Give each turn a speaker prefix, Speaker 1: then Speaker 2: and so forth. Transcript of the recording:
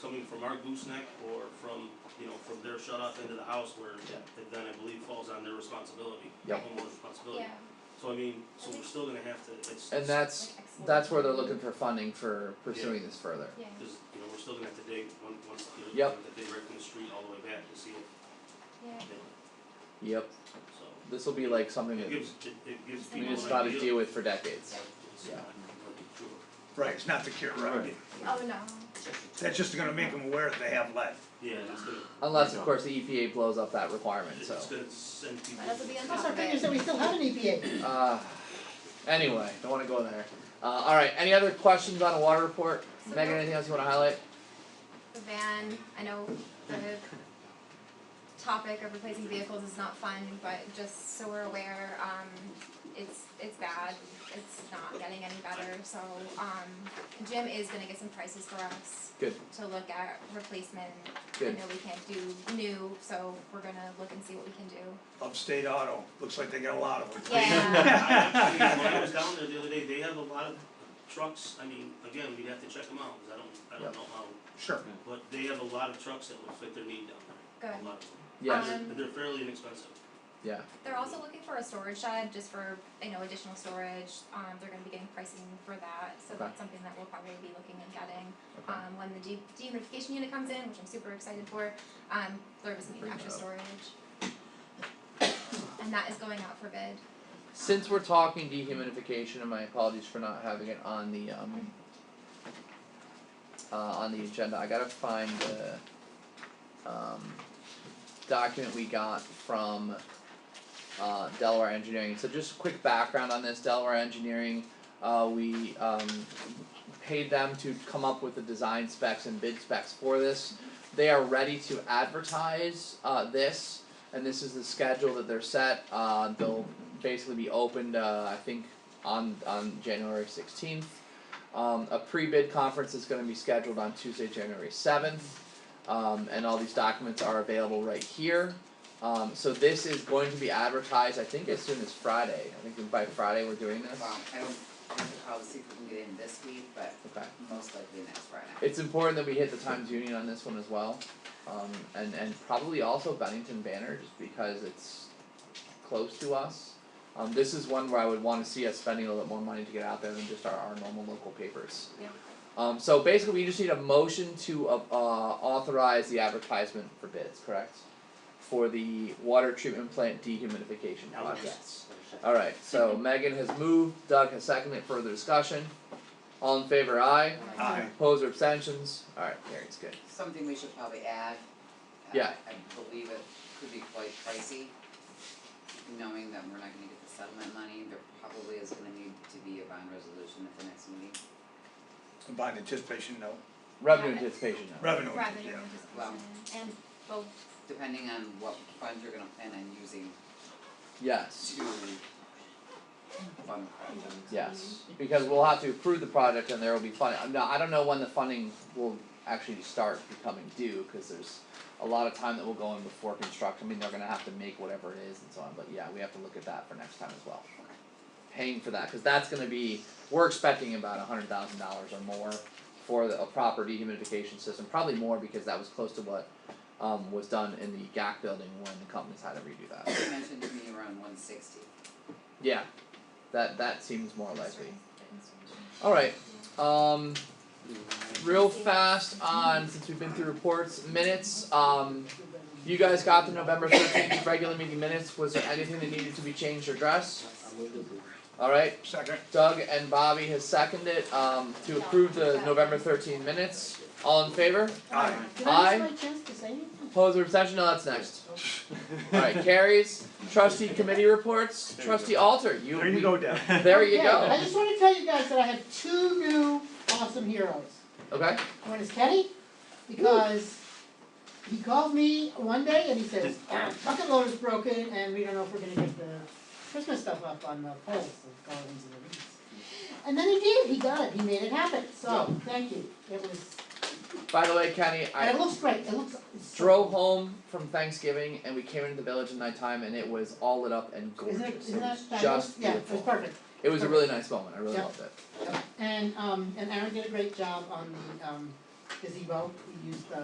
Speaker 1: coming from our gooseneck or from, you know, from their shut off into the house where it then I believe falls on their responsibility,
Speaker 2: Yep.
Speaker 1: homeowner responsibility.
Speaker 3: Yeah,
Speaker 1: So I mean, so we're still gonna have to, it's,
Speaker 2: And
Speaker 1: it's-
Speaker 2: that's
Speaker 3: like export.
Speaker 2: that's where they're looking for funding for pursuing this further.
Speaker 3: Yeah,
Speaker 1: cause, you know, we're still gonna have to dig one, once, you know,
Speaker 2: Yep.
Speaker 1: we're gonna have to dig right from the street all the way back to see it,
Speaker 3: yeah.
Speaker 1: you know,
Speaker 2: Yep.
Speaker 1: so.
Speaker 2: This will be like something
Speaker 1: It
Speaker 2: that
Speaker 1: gives, it, it gives people
Speaker 2: we
Speaker 3: We
Speaker 1: an idea.
Speaker 2: just got to deal with for decades.
Speaker 1: It's
Speaker 2: Yeah.
Speaker 1: not completely true.
Speaker 4: Right, it's not the cure, right?
Speaker 2: Right.
Speaker 3: Oh, no.
Speaker 4: That's just gonna make them aware that they have lead.
Speaker 1: Yeah, it's gonna,
Speaker 2: Unless of course the EPA blows up that requirement.
Speaker 1: it's
Speaker 2: So.
Speaker 1: gonna send people.
Speaker 3: Might as well be on
Speaker 5: That's
Speaker 3: top
Speaker 5: our
Speaker 3: of it.
Speaker 5: fingers that we still have an E EPA.
Speaker 2: Uh, anyway, don't want to go there. Uh, all right. Any other questions on a water report?
Speaker 3: So
Speaker 2: Megan,
Speaker 3: no-
Speaker 2: anything else you want to highlight?
Speaker 3: The van, I know the topic of replacing vehicles is not fun, but just so we're aware, um, it's, it's bad. It's not getting any better, so, um, Jim is gonna get some prices for us
Speaker 2: Good.
Speaker 3: to look at replacement.
Speaker 2: Good.
Speaker 3: I know we can't do new, so we're gonna look and see what we can do.
Speaker 4: Upstate Auto, looks like they got a lot of them.
Speaker 3: Yeah,
Speaker 1: I, I mean, when I was down there the other day, they have a lot of trucks, I mean, again, we'd have to check them out, cause I don't, I
Speaker 2: Yep.
Speaker 1: don't know how,
Speaker 4: Sure.
Speaker 1: but they have a lot of trucks that would fit their need down there,
Speaker 3: good.
Speaker 1: a lot of them.
Speaker 2: Yes.
Speaker 3: Um,
Speaker 1: And they're fairly inexpensive.
Speaker 2: yeah.
Speaker 3: They're also looking for a storage shed, just for, you know, additional storage, um, they're gonna be getting pricing for that, so
Speaker 2: Okay.
Speaker 3: that's something that we'll probably be looking and getting.
Speaker 2: Okay.
Speaker 3: Um, when the de- dehumidification unit comes in, which I'm super excited for, um, there was some
Speaker 2: Bring
Speaker 3: extra
Speaker 2: that up.
Speaker 3: storage. And that is going out for bid,
Speaker 2: Since we're talking dehumidification, and my apologies for not having it on the um uh, on the agenda, I gotta find the um document we got from uh Delaware Engineering. So just a quick background on this, Delaware Engineering, uh we um paid them to come up with the design specs and bid specs for this. They are ready to advertise uh this, and this is the schedule that they're set, uh they'll basically be opened uh, I think on on January sixteenth. Um, a pre-bid conference is going to be scheduled on Tuesday, January seventh, um, and all these documents are available right here. Um, so this is going to be advertised, I think, as soon as Friday. I think by Friday we're doing this.
Speaker 6: Well, Um, I don't, I have to call to see if we can get in this week, but
Speaker 2: Okay.
Speaker 6: most likely next Friday.
Speaker 2: It's important that we hit the Times Union on this one as well, um, and and probably also Bennington Banner just because it's close to us. Um, this is one where I would want to see us spending a little bit more money to get out there than just our, our normal local papers.
Speaker 3: Yeah.
Speaker 2: Um, so basically, we just need a motion to uh, uh, authorize the advertisement for bids, correct? For the water treatment plant dehumidification
Speaker 1: Now,
Speaker 2: project.
Speaker 1: that's-
Speaker 2: All right. So Megan has moved. Doug has seconded. Further discussion. All in favor, aye.
Speaker 4: Aye.
Speaker 2: Opposed or abstentions? Alright, carries good.
Speaker 6: Something we should probably add. uh,
Speaker 2: Yeah.
Speaker 6: I believe it could be quite pricey, knowing that we're not gonna get the settlement money, there probably is gonna need to be a bond resolution at the next meeting.
Speaker 4: Bond anticipation note,
Speaker 2: Revenue
Speaker 3: Yeah.
Speaker 2: anticipation note.
Speaker 4: revenue,
Speaker 3: revenue
Speaker 4: yeah.
Speaker 6: Wow.
Speaker 3: anticipation, and both,
Speaker 6: Depending on what funds you're gonna plan on using
Speaker 2: Yes,
Speaker 6: to fund the project.
Speaker 2: yes, because we'll have to approve the project and there will be funding, now, I don't know when the funding will actually start becoming due, cause there's a lot of time that will go in before construction, I mean, they're gonna have to make whatever it is and so on, but yeah, we have to look at that for next time as well. Paying for that, cause that's gonna be, we're expecting about a hundred thousand dollars or more for the, a proper dehumidification system, probably more because that was close to what um was done in the GAC building when the companies had to redo that.
Speaker 6: You mentioned to me around one sixty.
Speaker 2: Yeah, that that seems more likely.
Speaker 3: instruments, the instruments.
Speaker 2: All right, um, real fast on since we've been through reports minutes. Um, you guys got the November thirteenth regular meeting minutes. Was there anything that needed to be changed or addressed? All right,
Speaker 4: Second,
Speaker 2: Doug and Bobby has seconded um to approve the November thirteenth minutes. All in favor?
Speaker 4: aye.
Speaker 5: Did I
Speaker 2: Aye.
Speaker 5: miss my chance to say anything?
Speaker 2: Opposed or abstention? No, that's next. All right, carries. Trustee committee reports. Trustee Alter, you.
Speaker 4: There you go, Deb.
Speaker 2: There you
Speaker 5: Okay, I
Speaker 2: go.
Speaker 5: just wanna tell you guys that I have two new awesome heroes.
Speaker 2: Okay.
Speaker 5: One is Kenny, because he called me one day and he says, our bucket loader's broken and we don't know if we're gonna get the Christmas stuff up on the poles, the garlands and the wreaths. And then he did, he got it, he made it happen, so, thank you, it was,
Speaker 2: By the way, Kenny, I.
Speaker 5: and it looks great, it looks, it's so.
Speaker 2: drove home from Thanksgiving and we came into the village at nighttime and it was all lit up and gorgeous.
Speaker 5: Isn't it, isn't
Speaker 2: it
Speaker 5: that
Speaker 2: was
Speaker 5: fabulous?
Speaker 2: just
Speaker 5: Yeah, it
Speaker 2: beautiful.
Speaker 5: was perfect.
Speaker 2: It was a really nice moment. I really
Speaker 5: Yeah.
Speaker 2: loved it.
Speaker 5: And um and Aaron did a great job on the um gazebo, we used the